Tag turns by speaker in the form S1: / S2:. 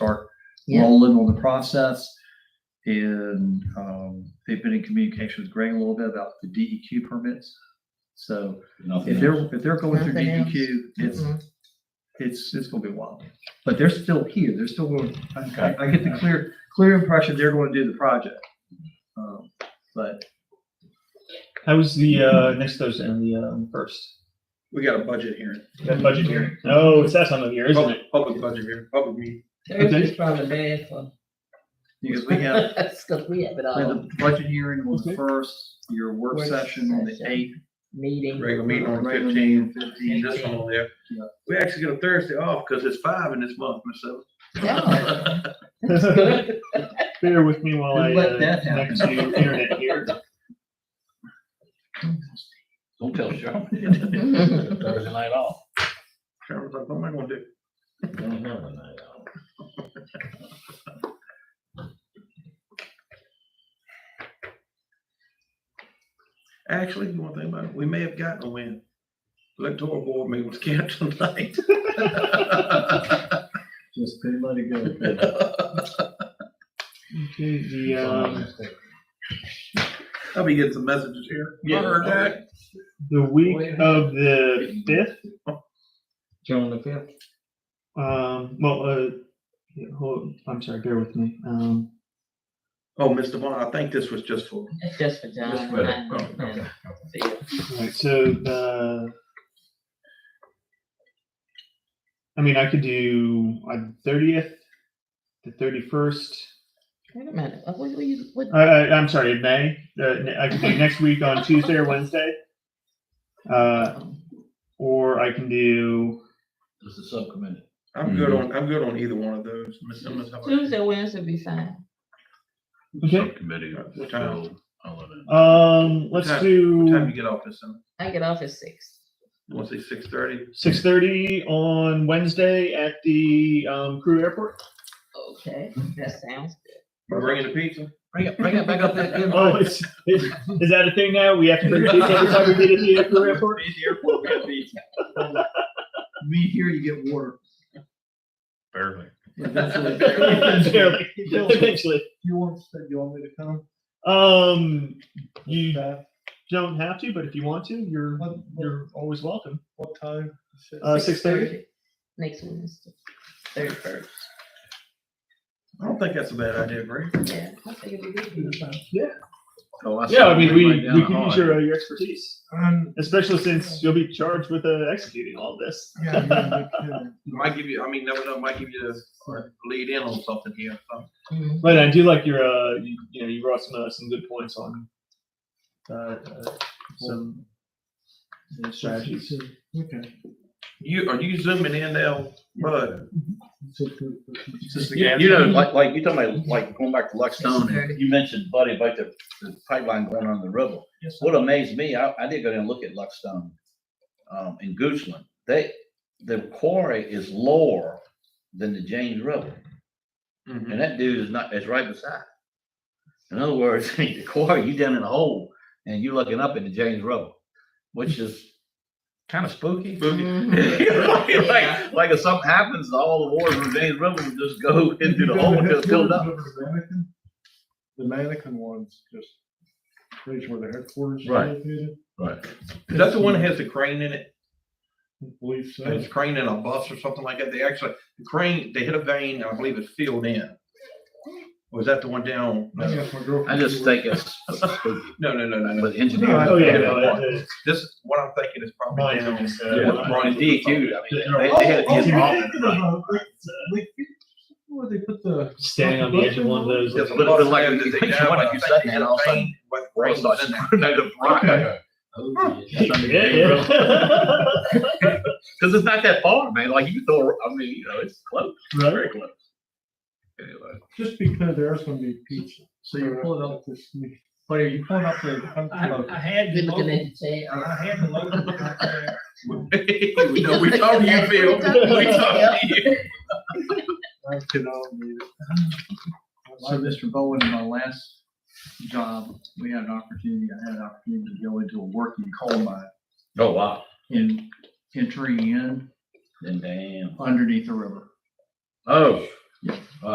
S1: Yeah.
S2: rolling on the process. And um, they've been in communication with Greg a little bit about the DEQ permits. So if
S3: Nothing else.
S2: they're, if they're going through
S1: Nothing else.
S2: DEQ, it's,
S1: Mhm.
S2: it's, it's gonna be wild. But they're still here, they're still going, I, I- I get the clear, clear impression they're going to do the project. Um, But
S4: How was the uh, next Thursday and the um, first?
S5: We got a budget hearing,
S4: That budget hearing? Oh, it's that time of year, isn't
S5: public,
S4: it?
S5: public budget hearing, public meeting.
S1: Thursday's probably bad for.
S2: because we have,
S1: us, 'cause we have it
S2: we have
S1: all,
S2: the budget hearing on the
S4: Okay.
S2: first, your work
S1: Work
S2: session on the
S1: session.
S2: eighth.
S1: meeting.
S5: Regular meeting on
S2: regular
S5: fifteen,
S2: meeting on 15.
S5: and this one over there.
S2: Yeah.
S5: We actually get a Thursday off because it's five in this month, Miss Sullivan.
S1: Yeah,
S2: Oh.
S1: it's good.
S4: Bear with me while I
S2: Don't let
S4: uh,
S2: that
S4: connect to internet here.
S3: Don't tell Sherman.
S1: Mhm.
S3: Thursday night off.
S5: Sherman's like, what am I gonna do?
S3: Don't have a night off.
S5: Actually, you want to think about it, we may have gotten a win. Electoral board meeting was canceled tonight.
S2: Just couldn't let it go.
S4: Okay, the, um,
S5: I'll be getting some messages here.
S4: Yeah.
S5: I heard that.
S4: the week of the fifth,
S3: June the fifth.
S4: um, well, uh, yeah, hold, I'm sorry, bear with me. Um,
S5: Oh, Mr. Vaughn, I think this was just for,
S1: It's just for John.
S5: Just for-
S1: and I,
S3: oh, okay.
S1: and Phil.
S4: all right, so, uh, I mean, I could do on thirtieth, the thirty-first,
S1: Wait a minute, uh, what, what you, what,
S4: I, I, I'm sorry, May, uh, ne- I could do next week on Tuesday or Wednesday. Uh, or I can do,
S3: This is subcommittee.
S5: I'm good on, I'm good on either one of those. Miss Simmons, how about you?
S1: Tuesday, Wednesday be fine.
S4: Okay.
S3: Subcommittee.
S5: What time?
S3: so I'll let it-
S4: um, let's
S5: What time- What time
S4: do
S5: you get off this? Simmons?
S1: I get off at six.
S5: You want to say six thirty?
S4: six thirty on Wednesday at the, um, crew airport.
S1: Okay, that sounds good.
S5: Bringing the pizza?
S3: Bring it, bring it back up that good.
S4: Oh, it's, is, is that a thing now? We have to bring pizza every time we get to the crew airport?
S2: Me here, you get water.
S3: Barely.
S2: Eventually,
S4: Barely. Eventually.
S2: You want, you want me to come?
S4: Um, you
S2: back?
S4: don't have to, but if you want to, you're,
S2: What, what,
S4: you're always welcome.
S2: what time?
S4: Uh, six thirty?
S1: Next Wednesday, thirty first,
S5: I don't think that's a bad idea, Greg.
S1: yeah. I think it'll be good.
S3: Oh,
S4: Yeah, I mean,
S3: saw
S4: we,
S3: right down
S4: we
S3: the
S4: can use
S3: hall.
S4: your, uh, your expertise.
S2: Um,
S4: Especially since you'll be charged with uh, executing all this.
S2: yeah, yeah, yeah.
S5: Might give you, I mean, never know, might give you the lead in on something here. so.
S1: Mhm.
S4: But I do like your, uh, you, you know, you brought some uh, some good points on uh, uh, some uh, strategies.
S2: Okay.
S5: You, are you zooming in now, bud?
S2: So, so, so-
S3: You you know, like, like, you're talking about, like, going back to Luckstone, and
S1: 6:30.
S3: you mentioned, Buddy, about the, the pipeline going on the river.
S2: Yes, sir.
S3: What amazed me, I, I did go down and look at Luckstone, um, in Goochland, they, the quarry is lower than the James River.
S5: Mhm.
S3: And that dude is not, is right beside. In other words, the quarry, you down in a hole and you looking up into James River, which is kind of spooky.
S5: Boogie.
S1: Mhm. Yeah.
S3: Like, like if something happens, all the water from James River will just go into the hole and just filled up.
S2: The mannequin- The mannequin ones, just, place where the headquarters. is
S3: Right.
S2: located.
S3: Right.
S5: Is that the one that has the crane in it?
S2: I believe so.
S5: It's crane in a bus or something like that. They actually, the crane, they hit a vein, I believe it's filled in. Was that the one down? No,
S2: I guess my girlfriend-
S3: I just think it's spooky,
S5: no, no, no, no. no.
S3: but engineering.
S4: Oh yeah, no, that- that-
S5: This, what I'm thinking is probably
S4: mine's
S5: down.
S4: almost, uh,
S5: Yeah.
S4: mine-
S3: Ronnie DQ, I mean, they,
S2: Oh,
S3: they had a
S2: oh,
S3: decent
S2: yeah,
S3: offense,
S2: yeah,
S3: right?
S2: yeah. Like, Where they put the.
S4: standing on the edge of one of those.
S5: There's a
S3: But-
S4: Like,
S3: but
S5: bus
S3: like,
S5: down
S3: you
S5: that they
S3: think you
S5: down,
S3: wanna
S5: but I
S3: do
S5: think
S3: something
S5: they hit
S3: and
S5: a
S3: all of a sudden-
S5: vein with
S2: Oh,
S3: All of a
S5: cranes
S3: sudden,
S5: in there.
S3: another rock. That's under James River. Cause it's not that far, man. Like you throw, I mean, you know, it's close,
S4: right?
S3: very close. Anyway,
S2: Just because there's gonna be pizza. So you're pulling up this, but are you pulling up the? I'm-
S6: I, I had the
S1: Be looking
S6: local,
S1: at the chat.
S6: I had the local contract.
S5: No, we talked to you, Phil. We talked to you.
S2: I could all do it. So Mr. Bowen, in my last job, we had an opportunity, I had an opportunity to go into a working coal mine
S3: oh wow,
S2: in, entering in
S3: then damn.
S2: underneath the river.
S3: Oh,